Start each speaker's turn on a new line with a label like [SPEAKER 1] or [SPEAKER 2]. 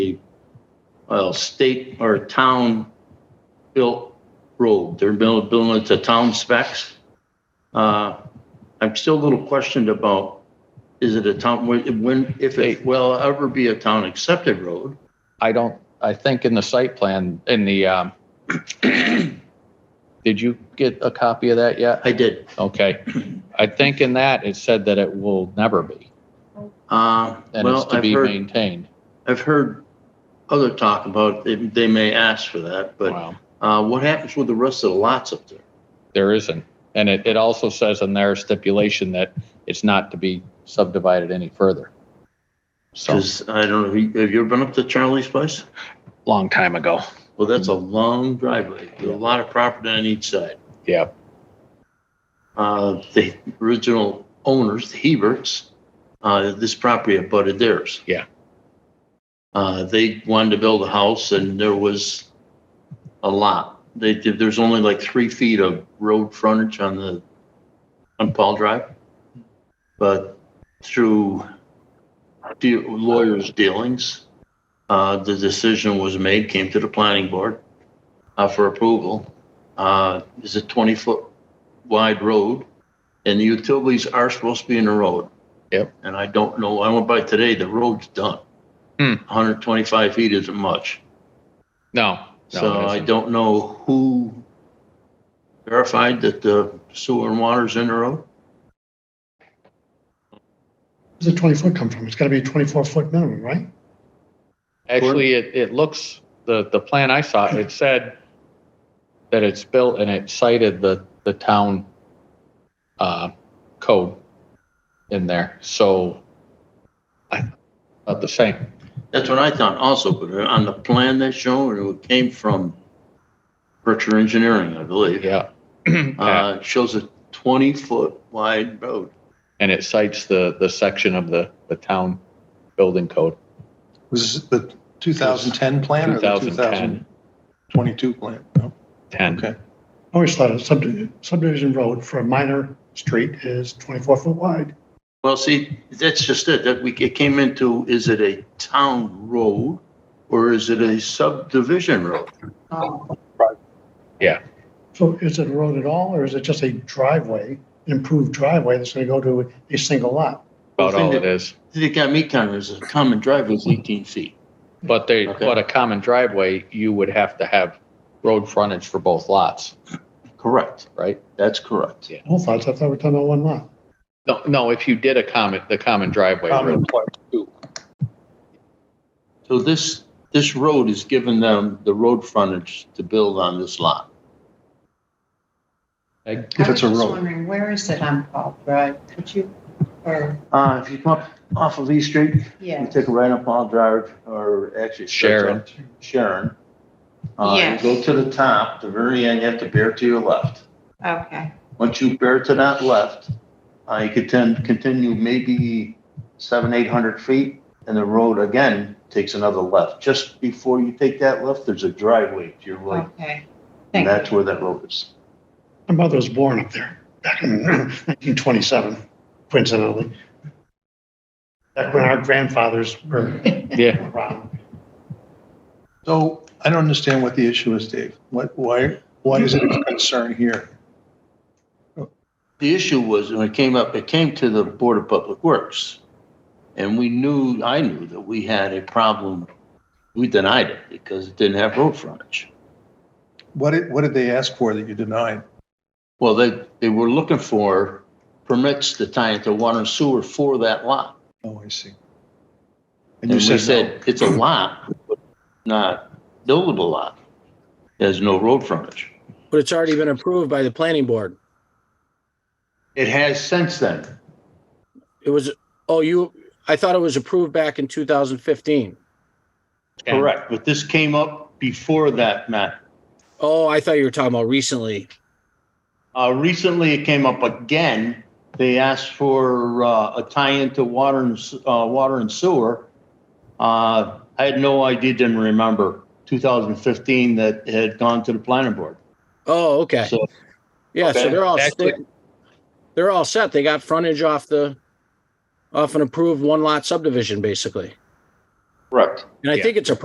[SPEAKER 1] well, state or town built road. They're buil- building it to town specs. Uh, I'm still a little questioned about, is it a town, when- when, if it will ever be a town accepted road?
[SPEAKER 2] I don't, I think in the site plan, in the, um, did you get a copy of that yet?
[SPEAKER 1] I did.
[SPEAKER 2] Okay. I think in that, it said that it will never be,
[SPEAKER 1] Uh,
[SPEAKER 2] and it's
[SPEAKER 1] Well,
[SPEAKER 2] to
[SPEAKER 1] I've
[SPEAKER 2] be
[SPEAKER 1] heard,
[SPEAKER 2] maintained.
[SPEAKER 1] I've heard other talk about, it. they may ask for that, but
[SPEAKER 2] Wow.
[SPEAKER 1] uh, what happens with the rest of the lots up there?
[SPEAKER 2] There isn't. And it, it also says in their stipulation that it's not to be subdivided any further. So,
[SPEAKER 1] Because I don't know, have you ever been up to Charlie's place?
[SPEAKER 2] long time ago.
[SPEAKER 1] Well, that's
[SPEAKER 2] Hmm.
[SPEAKER 1] a long driveway, There's a lot of property on each side.
[SPEAKER 2] Yeah.
[SPEAKER 1] Uh, The original owners, the Heberts, uh, this property abutted theirs.
[SPEAKER 2] Yeah.
[SPEAKER 1] Uh, They wanted to build a house and there was a lot. They, did- there's only like three feet of road frontage on the, on Paul Drive. But through de- lawyers' dealings, uh, the decision was made, came to the planning board uh, for approval. Uh, It's a 20-foot wide road, and the utilities are supposed to be in the road.
[SPEAKER 2] Yep.
[SPEAKER 1] And I don't know, I went by today, the road's done.
[SPEAKER 2] Hmm.
[SPEAKER 1] 125 feet isn't much.
[SPEAKER 2] No. no,
[SPEAKER 1] So
[SPEAKER 2] it
[SPEAKER 1] I
[SPEAKER 2] isn't.
[SPEAKER 1] don't know who verified that the sewer and water's in the road.
[SPEAKER 3] Where's the twenty foot come from? It's gotta be a twenty-four foot minimum, right?
[SPEAKER 2] Actually, it, it looks, the, the plan I saw, it said that it's built and it cited the, the town, uh, code in there, so I, about the same.
[SPEAKER 1] That's what I thought also, but on the plan that's shown, it came from Berkshire Engineering, I believe.
[SPEAKER 2] Yeah.
[SPEAKER 1] Uh, it shows a 20-foot wide road.
[SPEAKER 2] And it cites the, the section of the, the town building code,
[SPEAKER 4] Was this the 2010 plan or the
[SPEAKER 2] 2010.
[SPEAKER 4] 2022 plan? No.
[SPEAKER 2] ten.
[SPEAKER 4] Okay.
[SPEAKER 3] I Always thought a subdi- subdivision road for a minor street is twenty-four foot wide.
[SPEAKER 1] Well, see, that's just it, that we, it came into, is it a town road or is it a subdivision road?
[SPEAKER 3] So is it a road at all, or is it just a driveway, improved driveway that's gonna go to a single lot?
[SPEAKER 2] About all it is.
[SPEAKER 1] They got me counted as a common driveway is 18 feet.
[SPEAKER 2] But they,
[SPEAKER 1] Okay.
[SPEAKER 2] but a common driveway, you would have to have road frontage for both lots,
[SPEAKER 1] Correct.
[SPEAKER 2] right?
[SPEAKER 1] That's correct.
[SPEAKER 2] Yeah.
[SPEAKER 3] Whole thoughts, I thought we were talking about one lot.
[SPEAKER 2] No, no, if you did a common, the common driveway. road.
[SPEAKER 1] So this, this road is giving them the road frontage to build on this lot.
[SPEAKER 2] Peg?
[SPEAKER 4] If it's a
[SPEAKER 5] I was just
[SPEAKER 4] road.
[SPEAKER 5] wondering, where is it on Paul Drive? Could you, or,
[SPEAKER 1] Uh, if you come up off of East Street, you
[SPEAKER 5] yeah,
[SPEAKER 1] take a right up Paul Drive or actually. it starts
[SPEAKER 2] Sharon.
[SPEAKER 1] up Sharon. Uh, you
[SPEAKER 5] Yes.
[SPEAKER 1] Go to the top, the very end, you have to bear to your left.
[SPEAKER 5] okay,
[SPEAKER 1] Once you bear to that left, uh, you could then continue maybe seven, eight hundred feet, and the road again takes another left. Just before you take that left, there's a driveway to your right,
[SPEAKER 5] okay.
[SPEAKER 1] and
[SPEAKER 5] Oh, Thank
[SPEAKER 1] that's
[SPEAKER 5] you.
[SPEAKER 1] where that road is.
[SPEAKER 3] My mother was born up there back in nineteen twenty-seven, coincidentally. Back when our grandfathers were
[SPEAKER 2] Yeah,
[SPEAKER 3] around.
[SPEAKER 4] So I don't understand what the issue is, Dave. What, why, why is it a concern here?
[SPEAKER 1] The issue was, when it came up, it came to the Board of Public Works, and we knew, I knew that we had a problem. We denied it because it didn't have road frontage.
[SPEAKER 4] What did, what did they ask for that you denied?
[SPEAKER 1] Well, they, they were looking for permits to tie into water and sewer for that lot.
[SPEAKER 4] Oh, I see.
[SPEAKER 1] And
[SPEAKER 4] you
[SPEAKER 1] we
[SPEAKER 4] no.
[SPEAKER 1] said, it's a lot, but not buildable lot. There's no road frontage.
[SPEAKER 6] But it's already been approved by the planning board.
[SPEAKER 1] It has since then.
[SPEAKER 6] It was, oh, you, I thought it was approved back in 2015.
[SPEAKER 2] And-
[SPEAKER 1] Correct, but this came up before that, Matt.
[SPEAKER 6] Oh, I thought you were talking about recently.
[SPEAKER 1] Uh, recently, it came up again. They asked for, uh, a tie-in to water and, s- uh, water and sewer. Uh, I had no idea, didn't remember, 2015 that it had gone to the planning board.
[SPEAKER 6] Oh, okay.
[SPEAKER 1] So-
[SPEAKER 6] Yeah, so
[SPEAKER 1] Okay.
[SPEAKER 6] they're all,
[SPEAKER 2] Actually-
[SPEAKER 6] they're all set. They got frontage off the, off an approved one lot subdivision, basically.
[SPEAKER 1] Correct.
[SPEAKER 6] And I
[SPEAKER 2] Yeah.
[SPEAKER 6] think it's a